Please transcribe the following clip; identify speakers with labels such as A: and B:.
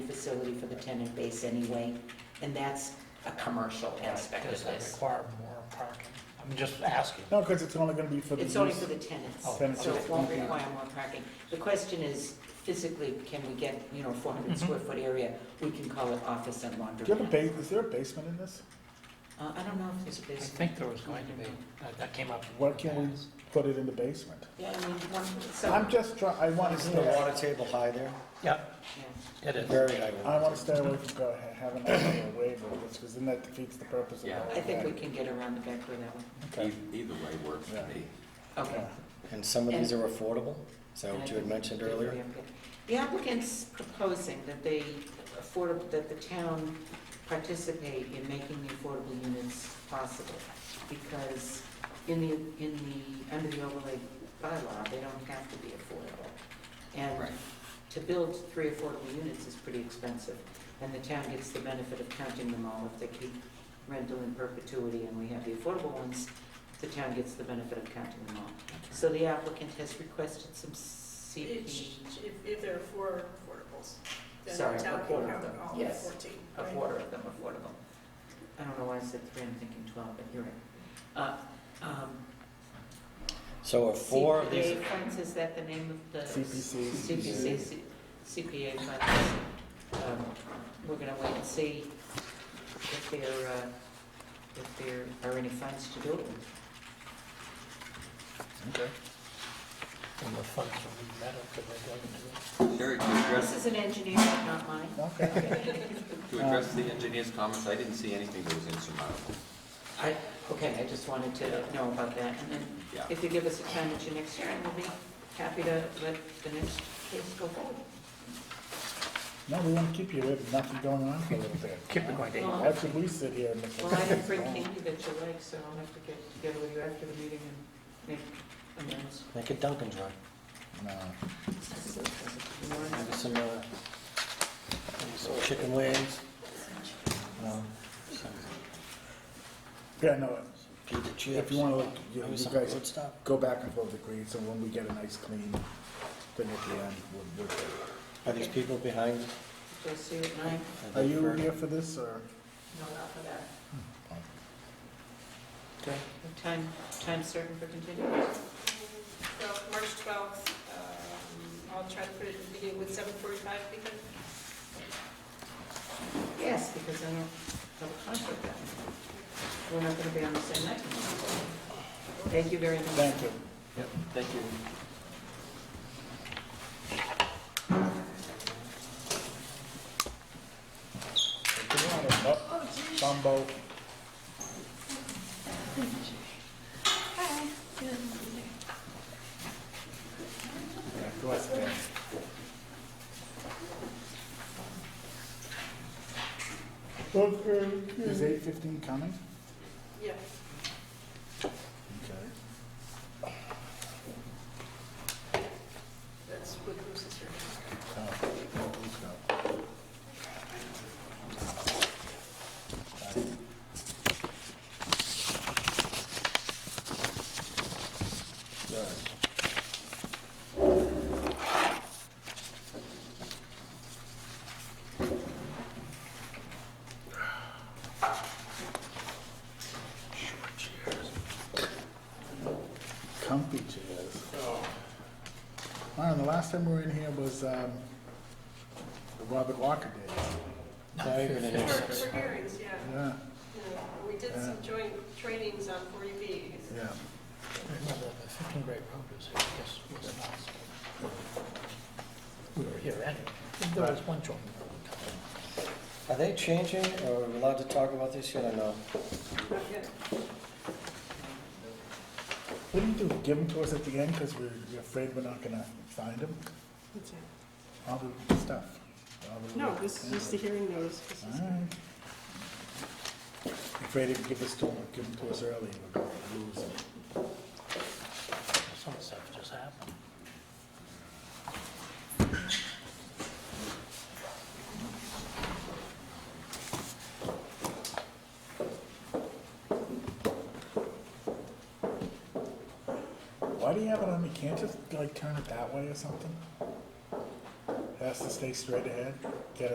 A: facility for the tenant base anyway, and that's a commercial aspect of
B: Does that
A: this.
B: require more parking? I'm just asking.
C: No, because it's only gonna be for the
A: It's only
C: use.
A: for the tenants,
B: Oh,
A: so it
C: okay.
A: won't require more parking. The question is, physically, can we get, you know, four hundred
B: Mhm.
A: square foot area? We can call it office and laundry.
C: Mm-hmm. Do you have a ba, is there a basement in this?
A: Uh, I don't know if there's a
B: I
A: basement.
B: think there was going to be, that- that came up.
C: Why can't we put it in the basement?
A: Yeah, I mean, one, so.
C: I'm just trying, I want to
D: Isn't the
C: stay,
D: water table high there?
B: Yeah,
A: yeah.
B: it is.
D: Very high. water
C: I want
D: table.
C: to stay away from go- ha- having a waiver, because then that defeats the purpose of the
E: Yeah.
C: whole
A: I think we
C: thing.
A: can get around the back with that one.
E: E-
C: Okay.
E: Either way works for me.
A: Okay.
C: Yeah.
D: And some of these are affordable, is that
A: And I
D: what you had
A: think
D: mentioned
A: they're
D: earlier?
A: very okay. The applicant's proposing that they affordable, that the town participate in making the affordable units possible, because in the, in the, under the overlay bylaw, they don't have to be affordable. And to build three affordable units is pretty expensive, and the town gets the benefit of counting them all. If they keep rental in perpetuity and we have the affordable ones, the town gets the benefit of counting them all. So the applicant has requested some
F: It
A: CP,
F: sh- If, if there are four portables, then
A: Sorry,
F: the town
A: a
F: can
A: quarter of
F: have
A: them,
F: all
A: yes.
F: fourteen,
A: a
F: right?
A: quarter of them affordable. I don't know why I said three, I'm thinking twelve, but you're right. Uh, um,
D: So are four of these,
A: CPA funds, is that the name of the?
C: CPC.
A: CPC, C- CPA funds. Um, We're gonna wait and see if there, uh, if there are any funds to do it with.
B: From the funds from the metal, because they're going to.
E: Sherry, to address,
A: This is an engineer, not mine.
C: Okay,
E: to address the engineer's comments, I didn't see anything that was insurmountable.
A: I, okay, I just wanted to know about that, and then
E: Yeah.
A: if you give us a time at your next hearing, we'll be happy to let the next case go forward.
C: no, we want to keep you, we have nothing going on for a little bit.
B: Keep it going, Dave.
A: Well,
C: Why should we sit here and?
A: Well, I didn't bring candy that you like, so I'll have to get together with you after the meeting and make amends.
D: make a Dunkin' Drive,
C: No,
D: maybe some, uh, maybe some chicken wings, no, some
C: yeah, no,
D: pita chips.
C: if you want to, like, you
D: maybe
C: you
D: some
C: guys
D: good stuff.
C: go back and forth agree, so when we get a nice clean, then at the end, we'll, we'll.
D: Are these people behind?
A: Do I see you at nine?
D: Are
C: Are
D: they
C: you
D: for-
C: here for this, or?
F: No, not for that.
A: Okay. Time, time certain for continuance?
F: Well, March twelfth, um, I'll try to put it in the beginning with seven forty-five, because
A: Yes, because I don't have a conflict that night. We're not gonna be on the same night. Thank you very much.
C: Thank you.
E: Thank you.
C: Oh, Bumbo. Yeah, go ahead. Is eight fifteen coming?
F: yeah,
C: Okay.
F: that's what Bruce is here.
C: Oh, well, who's got- Yeah. comfy chairs. I don't know, the last time we were in here was, um, the Robert Walker days,
D: Now you're gonna do
F: For,
D: six.
F: for hearings, yeah,
C: yeah,
F: Yeah, we did some joint trainings on forty B,
C: yeah.
B: Remember the 15 Great Road was, I guess, was an obstacle. We were here anyway. There was one joint.
D: Are they changing, or are we allowed to talk about this yet or no?
F: not yet.
C: What do you do, give them to us at the end, cause we're, we're afraid we're not gonna find them? All the stuff. all the-
G: No, this is just the hearing notice. This is-
C: Alright. Afraid if you give us to, give them to us early, we're gonna lose them.
B: Some stuff just happened.
C: Why do you have it on, you can't just like turn it that way or something? It Has to stay straight ahead?